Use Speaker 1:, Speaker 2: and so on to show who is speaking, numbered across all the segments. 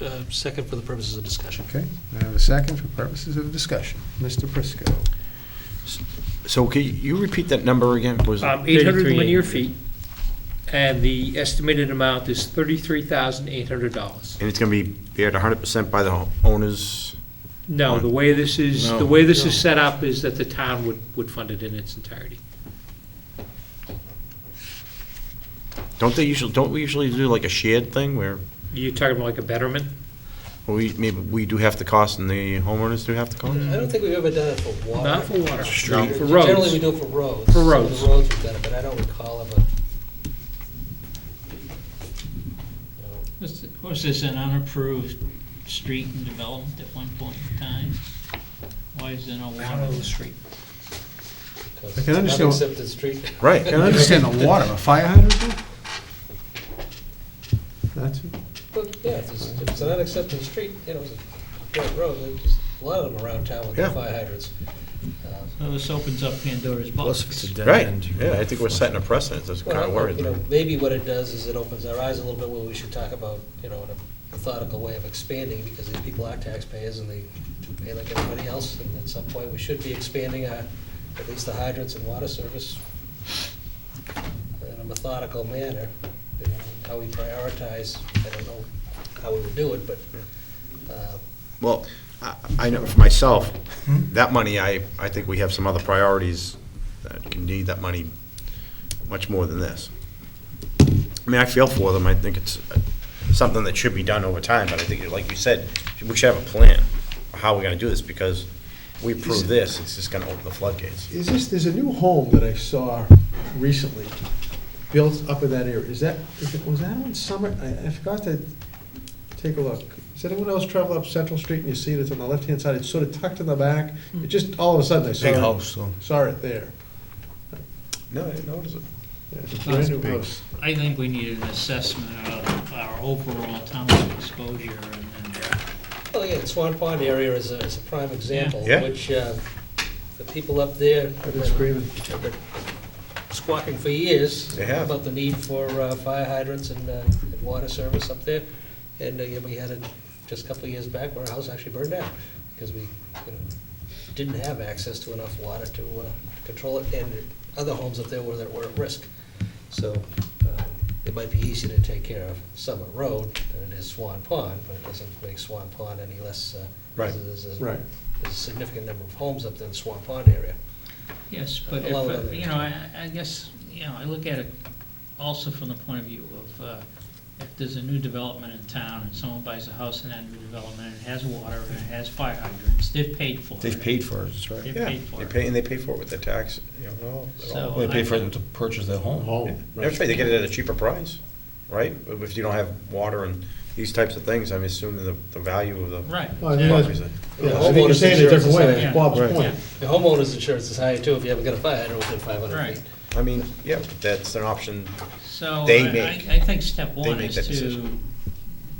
Speaker 1: uh, second for the purposes of discussion.
Speaker 2: Okay, I have a second for purposes of discussion. Mr. Prisco.
Speaker 3: So can you repeat that number again? Was it-
Speaker 4: Um, 800
Speaker 5: 33,800.
Speaker 4: linear feet, and the estimated amount is $33,800.
Speaker 3: And it's going to be bared 100% by the owners?
Speaker 4: No, the way this is,
Speaker 3: No.
Speaker 4: the way this
Speaker 1: No.
Speaker 4: is set up is that the town would, would fund it in its entirety.
Speaker 3: Don't they usually, don't we usually do like a shared thing where
Speaker 4: You're talking about like a betterment?
Speaker 3: we, maybe we do half the cost and the homeowners do half the cost?
Speaker 1: I don't think we've ever done it for water.
Speaker 4: Not for water.
Speaker 3: Street.
Speaker 1: Generally,
Speaker 4: For
Speaker 1: we
Speaker 4: roads.
Speaker 1: do it for roads. Some of
Speaker 4: roads.
Speaker 1: The roads we've done it, but I don't recall of a.
Speaker 5: Was was this an unapproved street and development at one point in time? Why is there no water on the street?
Speaker 2: I can understand-
Speaker 1: Except the street.
Speaker 3: Right.
Speaker 2: I understand the water, a fire hydrant? though? That's,
Speaker 1: But, yeah, if it's, if it's an unaccepted street, you know, it's a dirt road, there's just a lot of them around town with
Speaker 3: Yeah.
Speaker 1: fire hydrants. Um,
Speaker 5: So this opens up Pandora's box.
Speaker 3: Right, yeah, I think we're setting a precedent, that's kind
Speaker 1: Well,
Speaker 3: of worried.
Speaker 1: you know, maybe what it does is it opens our eyes a little bit, where we should talk about, you know, in a methodical way of expanding, because these people are taxpayers and they pay like everybody else, and at some point, we should be expanding our, at least the hydrants and water service in a methodical manner, you know, how we prioritize, I don't know how we would do it, but, uh,
Speaker 3: Well, I- I know for myself, that money, I, I think we have some other priorities that can need that money much more than this. I mean, I feel for them, I think it's uh, something that should be done over time, but I think, like you said, we should have a plan of how we're gonna do this, because we approve this, it's just gonna open the floodgates.
Speaker 2: is this, there's a new home that I saw recently, built up in that area. Is that, is it, was that on Summit? I, I forgot to take a look. Does anyone else travel up Central Street and you see it, it's on the left-hand side, it's sort of tucked in the back? It just, all of a sudden, I saw it.
Speaker 6: Big house, though.
Speaker 2: Saw it there.
Speaker 3: No, I didn't notice it.
Speaker 2: Yeah, It's a brand new
Speaker 6: big.
Speaker 2: house.
Speaker 5: I think we need an assessment of our overall town's exposure and then
Speaker 1: Well, Oh, yeah, the Swan Pond area is a, is a prime example,
Speaker 3: Yeah.
Speaker 1: which, uh, the people up there.
Speaker 2: I've been screaming.
Speaker 1: have been Squawking for years.
Speaker 3: They have.
Speaker 1: About the need for, uh, fire hydrants and, uh, and water service up there. And, uh, yeah, we had it just a couple of years back where our house actually burned down, because we, you know, didn't have access to enough water to, uh, to control it, and other homes up there were, that were at risk. So, uh, it might be easier to take care of Summit Road than it is Swan Pond, but it doesn't make Swan Pond any less, uh,
Speaker 3: Right.
Speaker 1: there's a-
Speaker 2: Right.
Speaker 1: There's a significant number of homes up there in the Swan Pond area.
Speaker 5: Yes, but
Speaker 1: A
Speaker 5: if,
Speaker 1: lot of
Speaker 5: uh,
Speaker 1: other
Speaker 5: you know, I, I guess, you know, I look at it also from the point of view of, uh, if there's a new development in town and someone buys a house in that new development and it has water and it has fire hydrants, they've paid for it.
Speaker 6: They've paid for it, that's right.
Speaker 5: They've
Speaker 3: Yeah,
Speaker 5: paid for
Speaker 3: they
Speaker 5: it.
Speaker 3: pay, and they pay for it with their tax, you know, all- all.
Speaker 5: So-
Speaker 6: Well, They paid for them to purchase their home.
Speaker 3: Yeah, That's right, they get it at a cheaper price, right? If you don't have water and these types of things, I'm assuming the, the value of the.
Speaker 5: Right.
Speaker 2: Well,
Speaker 5: yeah.
Speaker 2: it was-
Speaker 3: Obviously.
Speaker 2: Yeah, I think you're saying it a different way, that's Bob's
Speaker 6: Right.
Speaker 2: point.
Speaker 1: The homeowners insurance is higher too, if you haven't got a fire hydrant within five hundred
Speaker 5: Right.
Speaker 1: feet.
Speaker 3: I mean, yeah, but that's an option.
Speaker 5: So
Speaker 3: They
Speaker 5: I-
Speaker 3: make-
Speaker 5: I, I think step
Speaker 3: they
Speaker 5: one
Speaker 3: make
Speaker 5: is
Speaker 3: that
Speaker 5: to
Speaker 3: decision.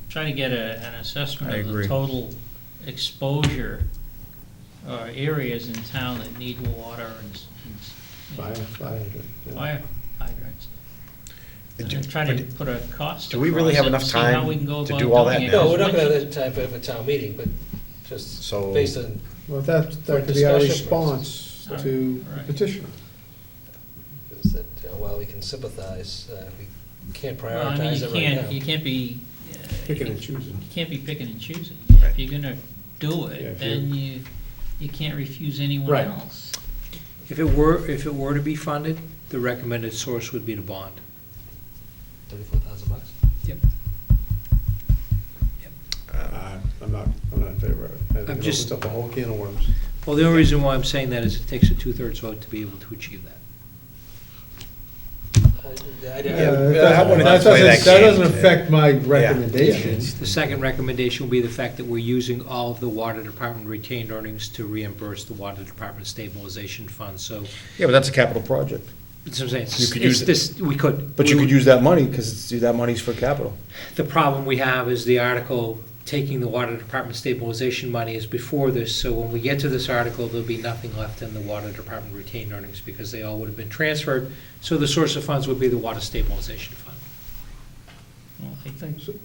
Speaker 5: try to get a, an assessment
Speaker 6: I
Speaker 5: of the
Speaker 6: agree.
Speaker 5: total exposure or areas in town that need water and, s- and s-
Speaker 2: Fire, fire hydrant, yeah.
Speaker 5: fire hydrants. And
Speaker 3: Do-
Speaker 5: then try to
Speaker 3: but
Speaker 5: put a cost.
Speaker 3: do we really
Speaker 5: across
Speaker 3: have
Speaker 5: it and
Speaker 3: enough
Speaker 5: see how
Speaker 3: time
Speaker 5: we can go
Speaker 3: to
Speaker 5: about
Speaker 3: do all
Speaker 5: doing
Speaker 3: that
Speaker 5: it.
Speaker 3: now?
Speaker 1: No, we're not
Speaker 5: Once
Speaker 1: gonna
Speaker 5: you-
Speaker 1: have time for a town meeting, but just
Speaker 3: So-
Speaker 1: based on,
Speaker 2: Well, that, that could be our
Speaker 1: Discussion.
Speaker 2: response to
Speaker 5: Right.
Speaker 2: petitioner.
Speaker 1: is that uh, while we can sympathize, uh, we can't
Speaker 5: Well, I mean,
Speaker 1: prioritize
Speaker 5: you
Speaker 1: it
Speaker 5: can't, you
Speaker 1: right now.
Speaker 5: can't be. uh,
Speaker 2: Picking and choosing.
Speaker 5: You can't be picking and choosing.
Speaker 3: Right.
Speaker 5: If you're gonna do
Speaker 2: Yeah, if
Speaker 5: it, then you, you can't refuse anyone
Speaker 2: Right.
Speaker 5: else.
Speaker 4: If it were, if it were to be funded, the recommended source would be to bond.
Speaker 1: Thirty-four thousand bucks.
Speaker 4: Yep.
Speaker 2: Uh, I'm not, I'm not in favor of it. I think
Speaker 4: I'm
Speaker 2: it
Speaker 4: just-
Speaker 2: opens up a whole can of worms.
Speaker 4: Well, the only reason why I'm saying that is it takes a two-thirds vote to be able to achieve that.
Speaker 1: I- I-
Speaker 2: Yeah,
Speaker 3: yeah, I wouldn't
Speaker 2: Uh, That
Speaker 3: play
Speaker 2: doesn't,
Speaker 3: that
Speaker 2: that
Speaker 3: game.
Speaker 2: doesn't affect my recommendation.
Speaker 4: The second recommendation will be the fact that we're using all of the water department retained earnings to reimburse the water department stabilization fund, so,
Speaker 6: Yeah, but that's a capital project.
Speaker 4: that's what I'm saying,
Speaker 6: You could
Speaker 4: it's
Speaker 6: use it.
Speaker 4: this, we could.
Speaker 6: But
Speaker 4: we
Speaker 6: you could
Speaker 4: would-
Speaker 6: use that money, because that money's for capital.
Speaker 4: The problem we have is the article taking the water department stabilization money is before this, so when we get to this article, there'll be nothing left in the water department retained earnings, because they all would have been transferred, so the source of funds would be the water stabilization fund.
Speaker 5: Well, I think